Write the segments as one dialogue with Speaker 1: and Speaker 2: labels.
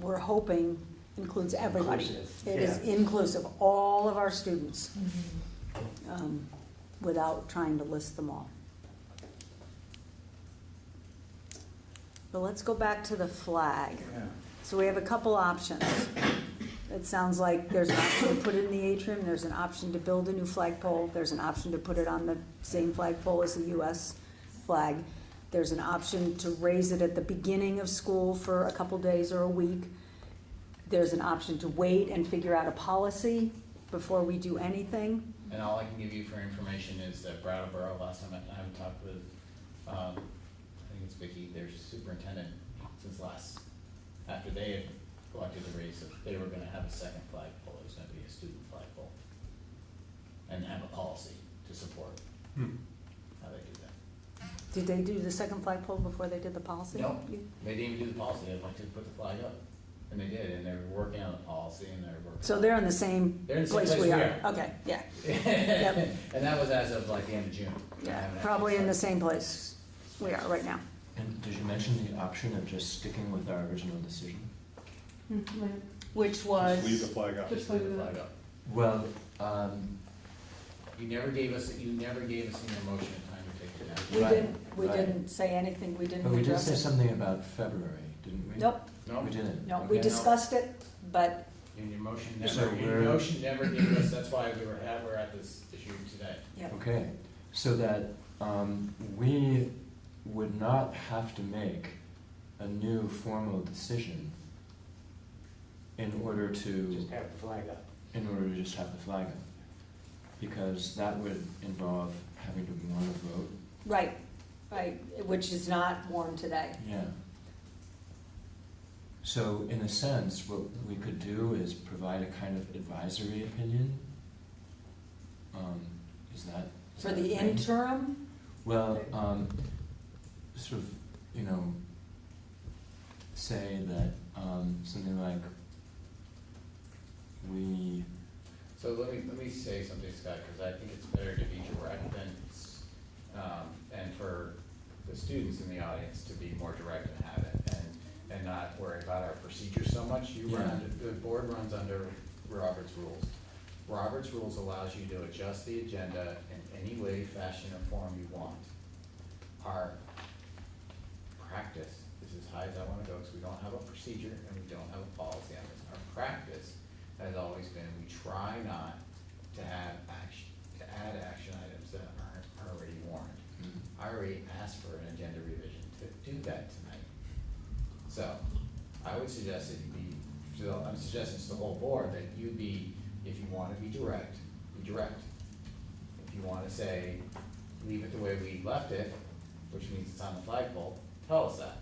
Speaker 1: we're hoping includes everybody.
Speaker 2: Inclusive,
Speaker 1: It is
Speaker 2: yeah.
Speaker 1: inclusive, all of our students,
Speaker 2: Mm-hmm.
Speaker 1: um, without trying to list them all. But let's go back to the flag. So we have a couple options. It sounds like there's an option to put it in the atrium, there's an option to build a new flagpole, there's an option to put it on the same flagpole as the US flag. There's an option to raise it at the beginning of school for a couple days or a week. There's an option to wait and figure out a policy before we do anything.
Speaker 3: And all I can give you for information is that Brattleboro, last time I, I haven't talked with, um, I think it's Vicky, their superintendent, since last, after they had collected the raise, that they were gonna have a second flagpole, it was gonna be a student flagpole. And have a policy to support how they do that.
Speaker 1: Did they do the second flagpole before they did the policy?
Speaker 3: No, they didn't even do the policy, they'd like to put the flag up, and they did, and they're working on the policy, and they're working.
Speaker 1: So they're in the same
Speaker 3: They're in the same
Speaker 1: place
Speaker 3: place
Speaker 1: we
Speaker 3: we
Speaker 1: are?
Speaker 3: are.
Speaker 1: Okay, yeah,
Speaker 3: And that was as of like the end of June. I
Speaker 1: yeah,
Speaker 3: haven't actually
Speaker 1: probably in the
Speaker 3: started.
Speaker 1: same place we are right now.
Speaker 4: And did you mention the option of just sticking with our original decision?
Speaker 1: Which
Speaker 5: Leave the flag up.
Speaker 3: Just put the flag up.
Speaker 4: Well, um,
Speaker 3: You never gave us, you never gave us an emotion in time to take it down.
Speaker 1: We
Speaker 4: Right,
Speaker 1: didn't, we
Speaker 4: right.
Speaker 1: didn't say anything, we didn't
Speaker 4: but we did
Speaker 1: address
Speaker 4: say
Speaker 1: it.
Speaker 4: something about February, didn't we? Oh,
Speaker 1: Nope,
Speaker 3: No,
Speaker 4: We didn't.
Speaker 1: no, we
Speaker 4: Okay.
Speaker 1: discussed it, but
Speaker 3: and your motion
Speaker 4: So
Speaker 3: never, your
Speaker 4: we're-
Speaker 3: motion never gave us, that's why we were, at- we're at this issue today.
Speaker 4: Okay, so that, um, we would not have to make a new formal decision in order to,
Speaker 2: Just have the flag up.
Speaker 4: in order to just have the flag up. Because that would involve having to warn a vote,
Speaker 1: right, right, which is not warm today.
Speaker 4: Yeah. So in a sense, what we could do is provide a kind of advisory opinion. Um, is that? is
Speaker 1: For
Speaker 4: that a
Speaker 1: the
Speaker 4: thing?
Speaker 1: interim,
Speaker 4: Well, um, sort of, you know, say that, um, something like, we,
Speaker 3: So let me, let me say something, Scott, because I think it's better to be direct than, s- um, and for the students in the audience to be more direct and have it, and, and not worry about our procedures so much. You run,
Speaker 4: Yeah.
Speaker 3: under the board runs under Robert's rules. Robert's rules allows you to adjust the agenda in any way, fashion, or form you want. Our practice is as high as I wanna go, because we don't have a procedure and we don't have a policy on this. Our practice has always been, we try not to have action, to add action items that aren't already warned. I already asked for an agenda revision to do that tonight. So, I would suggest that you be, so I'm suggesting to the whole board that you be, if you wanna be direct, be direct. If you wanna say, leave it the way we left it, which means it's on the flagpole, tell us that.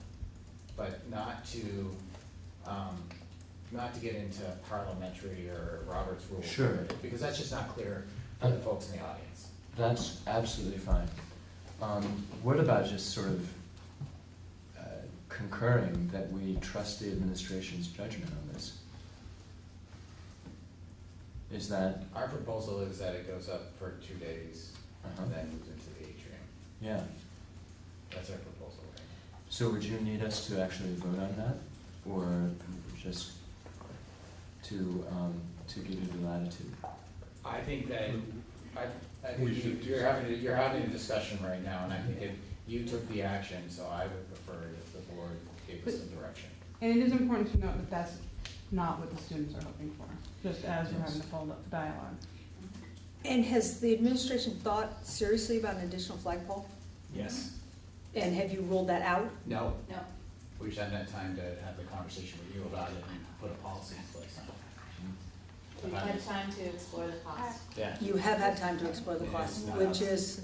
Speaker 3: But not to, um, not to get into parliamentary or Robert's rule.
Speaker 4: Sure.
Speaker 3: Because that's just not clear for the folks in the audience.
Speaker 4: That's absolutely fine. Um, what about just sort of uh, concurring that we trust the administration's judgment on this? Is that,
Speaker 3: Our proposal is that it goes up for two days
Speaker 4: uh
Speaker 3: and then moves into the atrium.
Speaker 4: yeah,
Speaker 3: That's our proposal, right?
Speaker 4: so would you need us to actually vote on that? Or just to, um, to give you the latitude?
Speaker 3: I think that, I, I
Speaker 5: We
Speaker 3: think you-
Speaker 5: should
Speaker 3: you're having, a- you're having a discussion right now, and I think if you took the action, so I would prefer if the board gave us some direction.
Speaker 6: And it is important to note that that's not what the students are hoping for, just as we're having
Speaker 4: Yes.
Speaker 6: to fold up the dialogue.
Speaker 1: and has the administration thought seriously about an additional flagpole?
Speaker 3: Yes.
Speaker 1: And have you ruled that out?
Speaker 3: No,
Speaker 1: No.
Speaker 3: we should have that time to have the conversation with you about it and put a policy in place on it.
Speaker 7: We've had time to explore the cost.
Speaker 3: Yeah.
Speaker 1: You have had time to explore the cost, which is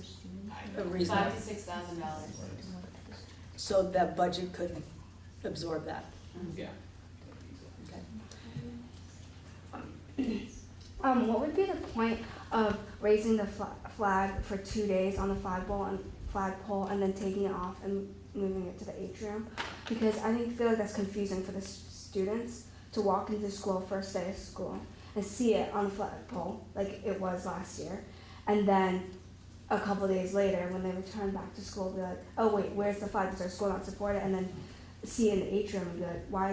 Speaker 1: a reason,
Speaker 7: Five to six thousand dollars.
Speaker 1: so that budget could absorb that,
Speaker 3: Yeah.
Speaker 1: okay?
Speaker 8: Um, what would be the point of raising the fla- flag for two days on the flagpole and flagpole, and then taking it off and moving it to the atrium? Because I think feel like that's confusing for the s- students to walk into school first day of school and see it on the flagpole like it was last year, and then a couple days later when they return back to school, be like, oh wait, where's the flag? Because our school not support it, and then see it in the atrium and be like, why